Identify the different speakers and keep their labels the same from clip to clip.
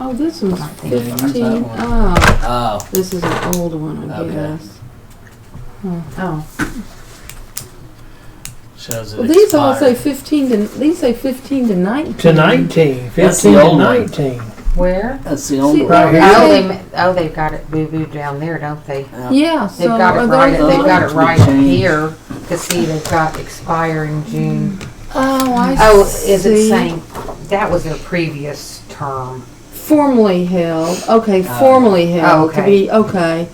Speaker 1: Oh, this one's
Speaker 2: I think it's
Speaker 1: fifteen.
Speaker 2: that one.
Speaker 1: Oh,
Speaker 2: Oh,
Speaker 1: this is an old one, I
Speaker 2: Okay.
Speaker 1: guess.
Speaker 3: Oh,
Speaker 2: shows it
Speaker 1: Well, these all say
Speaker 2: expired.
Speaker 1: fifteen to these say fifteen to nineteen.
Speaker 4: To 19,
Speaker 2: That's the
Speaker 4: 15 to
Speaker 2: old one.
Speaker 4: 19.
Speaker 3: where?
Speaker 2: That's the old
Speaker 1: See,
Speaker 2: one.
Speaker 4: Right here.
Speaker 3: Oh,
Speaker 1: They-
Speaker 3: they, ma- oh, they've got it boo-boo down there, don't they?
Speaker 1: Yeah, so
Speaker 3: They've got
Speaker 1: are
Speaker 3: it
Speaker 1: they
Speaker 3: right, they've got
Speaker 2: those
Speaker 3: it right
Speaker 2: changed?
Speaker 3: here, cause see, they've got expiring June.
Speaker 1: Oh, I
Speaker 3: Oh,
Speaker 1: see.
Speaker 3: is it saying, that was their previous term.
Speaker 1: Formally held. Okay, formally held. To
Speaker 3: Oh. okay.
Speaker 1: be, okay.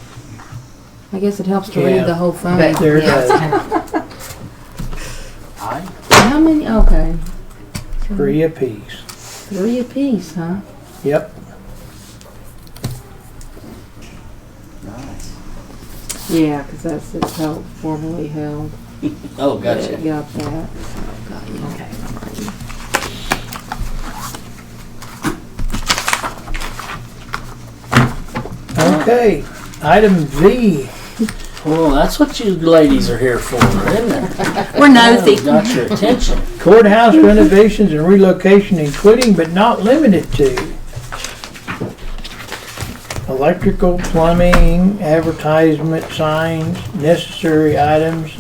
Speaker 1: I guess it helps to
Speaker 4: Yeah.
Speaker 1: read the whole
Speaker 2: Oh,
Speaker 1: thing.
Speaker 3: But,
Speaker 4: There it
Speaker 3: yeah,
Speaker 4: is.
Speaker 3: it's-
Speaker 2: I,
Speaker 1: How many? Okay.
Speaker 4: Three apiece.
Speaker 1: Three apiece, huh?
Speaker 4: Yep.
Speaker 2: nice.
Speaker 1: Yeah, because that's it's held, formally held.
Speaker 2: Oh, gotcha.
Speaker 1: Yeah, Got that. Got you.
Speaker 3: Okay.
Speaker 4: Okay. Item V.
Speaker 2: Well, that's what you ladies are here for, isn't it? We're nosy. Got your attention.
Speaker 4: Courthouse renovations and relocation, including but not limited to electrical, plumbing, advertisement, signs, necessary items.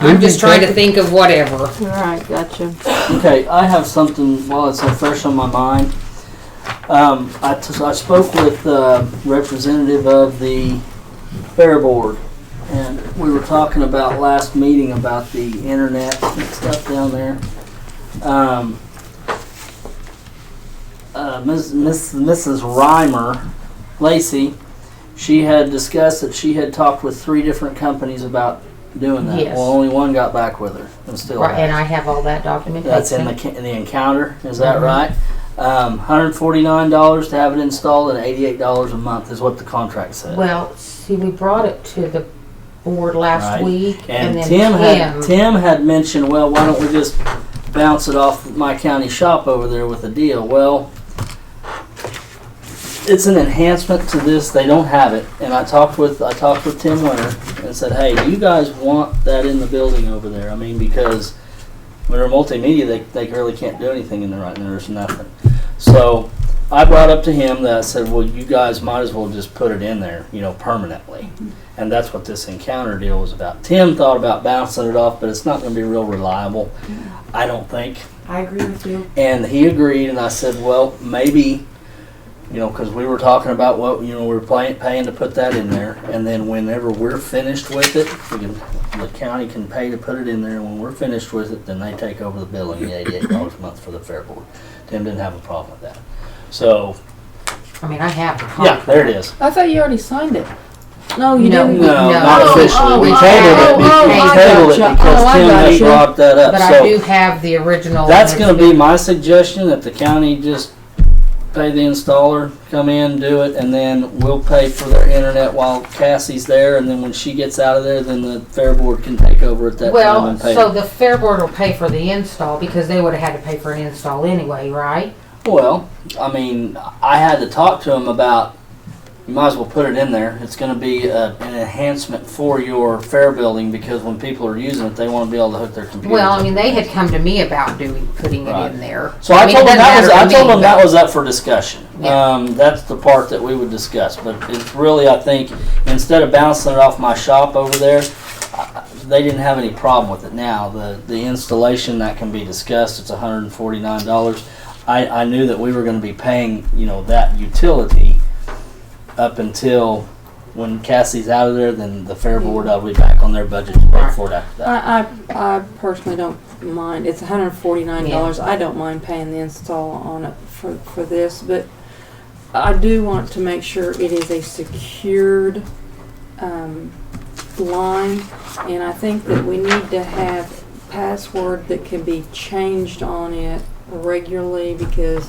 Speaker 3: I'm just trying to think of whatever.
Speaker 1: All right, gotcha.
Speaker 2: Okay, I have something while it's so fresh on my mind. Um, I, t- I spoke with uh, representative of the fair board, and we were talking about last meeting about the internet and stuff down there. Um, uh, Ms., Ms., Mrs. Reimer Lacey, she had discussed that she had talked with three different companies about doing that.
Speaker 3: Yes.
Speaker 2: Well, only one got back with her, and still
Speaker 3: Right,
Speaker 2: hasn't.
Speaker 3: and I have all that
Speaker 2: That's in the,
Speaker 3: documentation.
Speaker 2: ca- the encounter, is that right? Um, hundred forty-nine dollars to have it installed and eighty-eight dollars a month is what the contract said.
Speaker 3: Well, see, we brought it to the board last
Speaker 2: Right.
Speaker 3: week and
Speaker 2: And
Speaker 3: then
Speaker 2: Tim had,
Speaker 3: Tim.
Speaker 2: Tim had mentioned, well, why don't we just bounce it off my county shop over there with a deal? Well, it's an enhancement to this, they don't have it, and I talked with, I talked with Tim Winter and said, hey, do you guys want that in the building over there? I mean, because when they're multimedia, they, they really can't do anything in there right now, there's nothing. So I brought up to him that I said, well, you guys might as well just put it in there, you know, permanently. And that's what this encounter deal was about. Tim thought about bouncing it off, but it's not going to be real reliable, I don't think.
Speaker 3: I agree with you.
Speaker 2: And he agreed, and I said, well, maybe, you know, because we were talking about what, you know, we were paying, paying to put that in there. And then whenever we're finished with it, we can, the county can pay to put it in there. And when we're finished with it, then they take over the billing, the eighty-eight dollars a month for the fair board. Tim didn't have a problem with that. So,
Speaker 3: I mean, I have the
Speaker 2: yeah,
Speaker 3: contract.
Speaker 2: there it is.
Speaker 1: I thought you already signed it. No, you
Speaker 3: No.
Speaker 1: didn't.
Speaker 2: No,
Speaker 3: No.
Speaker 2: not
Speaker 3: Oh,
Speaker 2: officially.
Speaker 1: oh,
Speaker 2: We
Speaker 1: oh,
Speaker 2: tabled it,
Speaker 3: oh,
Speaker 2: be-
Speaker 3: oh,
Speaker 2: we
Speaker 3: I
Speaker 2: tabled it
Speaker 1: gotcha.
Speaker 2: because
Speaker 1: Oh, I
Speaker 2: Tim had
Speaker 1: gotcha.
Speaker 2: brought that up,
Speaker 3: But I do
Speaker 2: so.
Speaker 3: have the original.
Speaker 2: That's
Speaker 3: and
Speaker 2: gonna be my suggestion, that the county just pay the installer, come in, do it, and then we'll pay for their internet while Cassie's there, and then when she gets out of there, then the fair board can take over at that time
Speaker 3: Well,
Speaker 2: and pay.
Speaker 3: so the fair board will pay for the install because they would have had to pay for an install anyway, right?
Speaker 2: Well, I mean, I had to talk to him about, you might as well put it in there. It's gonna be a, an enhancement for your fair building, because when people are using it, they wanna be able to hook their computers
Speaker 3: Well, I
Speaker 2: up.
Speaker 3: mean, they had come to me about doing, putting it
Speaker 2: Right.
Speaker 3: in there.
Speaker 2: So I
Speaker 3: mean, it
Speaker 2: told them
Speaker 3: doesn't
Speaker 2: that was,
Speaker 3: matter
Speaker 2: I
Speaker 3: to
Speaker 2: told
Speaker 3: me,
Speaker 2: them
Speaker 3: but-
Speaker 2: that was up for discussion.
Speaker 3: Yeah.
Speaker 2: Um, that's the part that we would discuss, but it's really, I think, instead of bouncing it off my shop over there, I- they didn't have any problem with it now. The, the installation, that can be discussed, it's hundred and forty-nine dollars. I, I knew that we were gonna be paying, you know, that utility up until when Cassie's out of there, then the fair board, I'll be back on their budget to pay for it after that.
Speaker 1: I, I, I personally don't mind. It's hundred forty-nine dollars. I don't mind paying the install on it for, for this, but I do want to make sure it is a secured, um, line. And I think that we need to have password that can be changed on it regularly because,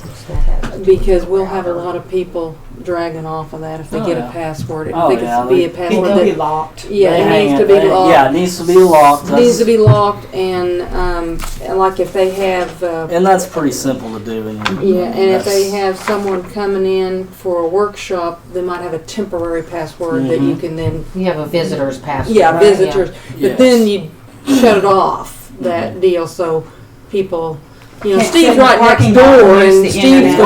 Speaker 1: because we'll have a lot of people dragging off of that if they
Speaker 2: Oh,
Speaker 1: get
Speaker 2: yeah.
Speaker 1: a password.
Speaker 2: Oh,
Speaker 1: I think
Speaker 2: yeah,
Speaker 1: it's be a
Speaker 2: they-
Speaker 1: password that.
Speaker 3: locked.
Speaker 1: Yeah,
Speaker 2: They
Speaker 1: it
Speaker 2: hang
Speaker 1: needs to be locked.
Speaker 2: Yeah, it needs to be locked.
Speaker 1: Needs
Speaker 2: That's-
Speaker 1: to be locked and, um, and like if they have, uh,
Speaker 2: And that's pretty simple to do. And
Speaker 1: yeah, and if they
Speaker 2: that's-
Speaker 1: have someone coming in for a workshop, they might have a temporary password that you
Speaker 2: Mhm.
Speaker 1: can then,
Speaker 3: You have a visitor's pass.
Speaker 1: yeah,
Speaker 3: right?
Speaker 1: visitors.
Speaker 2: Yeah. Mm-hmm.
Speaker 1: But then you shut it off, that deal, so people, you know, Steve's right next door and Steve's
Speaker 2: internet.
Speaker 1: gonna